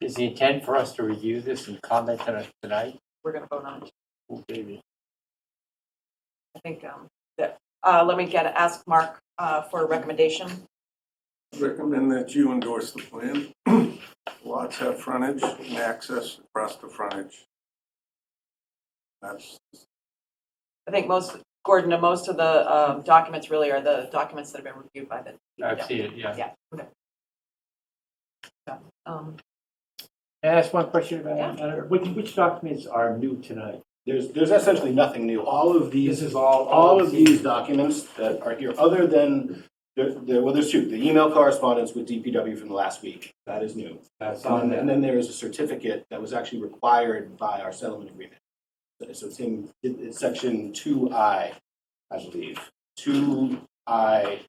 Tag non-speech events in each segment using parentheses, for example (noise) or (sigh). Is the intent for us to review this and comment on it tonight? We're gonna vote on it. Oh, baby. I think, um, that, uh, let me get, ask Mark, uh, for a recommendation. Recommend that you endorse the plan. (clears throat) Lots have frontage and access across the frontage. That's, I think most, Gordon, uh, most of the, um, documents really are the documents that have been reviewed by the. I've seen it, yeah. Yeah, okay. So, Um, Can I ask one question about Yeah. that matter? Which, which documents are new tonight? There's, there's essentially nothing new. All of these. This is all. All of these documents that are here, other than, there, there, well, there's two, the email correspondence with DPW from the last week, that is new. That's And then- and then there is a certificate that was actually required by our settlement agreement. So it's in, it- it's section two I, I believe. Two I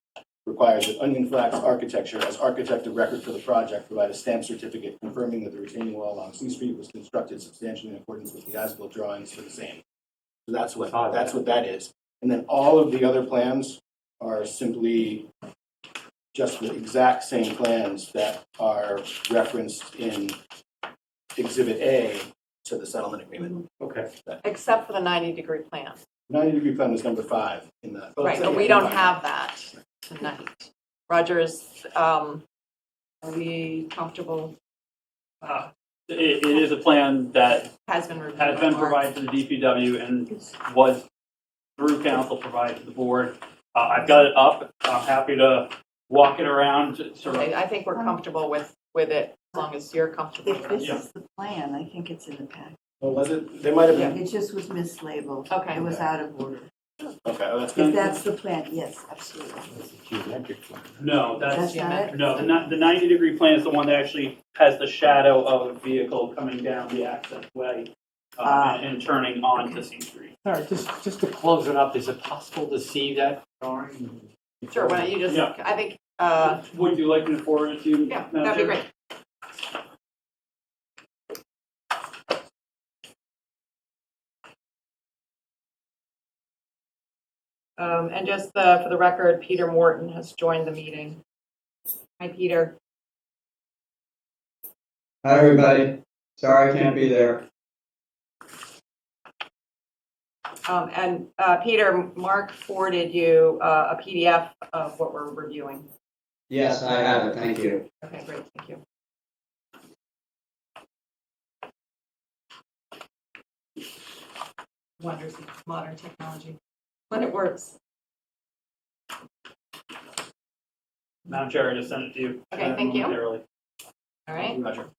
requires that Onion Flax Architecture, as architect of record for the project, provide a stamp certificate confirming that the retaining wall along C Street was constructed substantially in accordance with the as-built drawings for the same. So that's what, Saw that. that's what that is. And then all of the other plans are simply just the exact same plans that are referenced in Exhibit A to the settlement Mm-hmm. agreement. Okay. except for the ninety degree plan, 90-degree plan was number five in the. right, but we don't have that tonight. Rogers, um, are we comfortable, Uh, It, it is a plan that has been reviewed. has been by Mark. provided to the DPW and was through council provided to the board. Uh, I've got it up. I'm happy to walk it around, to sort Okay, of, I think we're comfortable with, with it, as long as you're comfortable. If with it. this is the plan, I think it's in the pack. Oh, was it? There might have been, It just was mislabeled. Okay. It was out of order. okay, oh, that's If good. that's the plan, yes, absolutely. That's a geometric one. no, that's, That's not it? no, the ni- the ninety degree plan is the one that actually has the shadow of a vehicle coming down the access way uh, Ah. and and turning onto C Street. All right, just, just to close it up, is it possible to see that drawing? Sure, why don't you just, Yeah. I think, uh, Would you like me to forward it to you? Yeah, Madam that'd be Chair? great. Um, and just uh, for the record, Peter Morton has joined the meeting. Hi, Peter. Hi, everybody. Sorry I can't be there. Um, and, uh, Peter, Mark forwarded you, uh, a PDF of what we're reviewing. Yes, I have it. Thank you. Okay, great, thank you. Wonders of modern technology, when it works. Madam Chair, I just sent it to you. Okay, uh, thank you. momentarily. All right, Roger.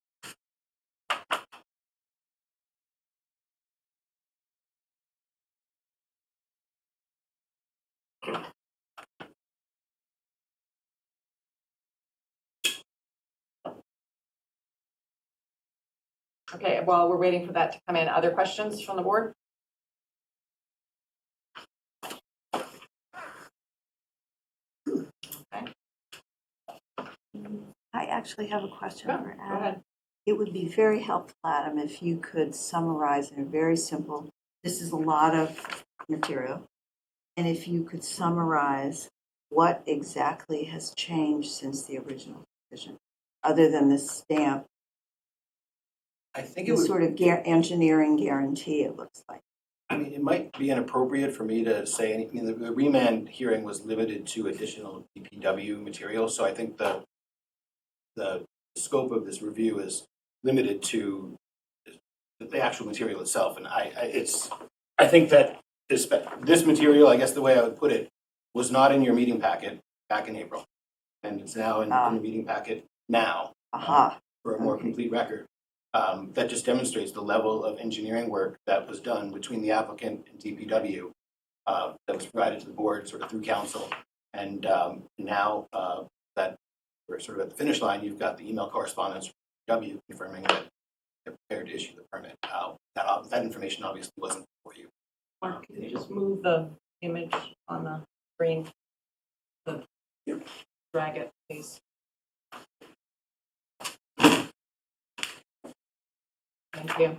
okay, while we're waiting for that to come in, other questions from the board? I actually have a question Sure, for Go Adam. ahead. It would be very helpful, Adam, if you could summarize in a very simple, this is a lot of material. And if you could summarize what exactly has changed since the original decision, other than the stamp, I think it the was, sort of guar- engineering guarantee it looks like. I mean, it might be inappropriate for me to say anything. The- The remand hearing was limited to additional DPW material, so I think the, the scope of this review is limited to the actual material itself. And I, I, it's, I think that this, this material, I guess the way I would put it, was not in your meeting packet back in April. And it's now in in the meeting packet now. Aha, for a more Okay. complete record. Um, That just demonstrates the level of engineering work that was done between the applicant and DPW uh, that was provided to the board sort of through council. And um, now uh, that we're sort of at the finish line, you've got the email correspondence from DPW confirming that they're prepared to issue the permit. Uh, That ob- that information obviously wasn't for you. Mark, can you just move the image on the screen? The- Drag it, please. Thank you.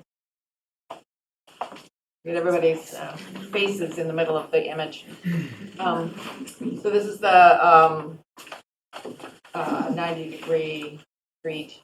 Get everybody's uh, faces in the middle of the image. Um, So this is the um, uh, 90-degree street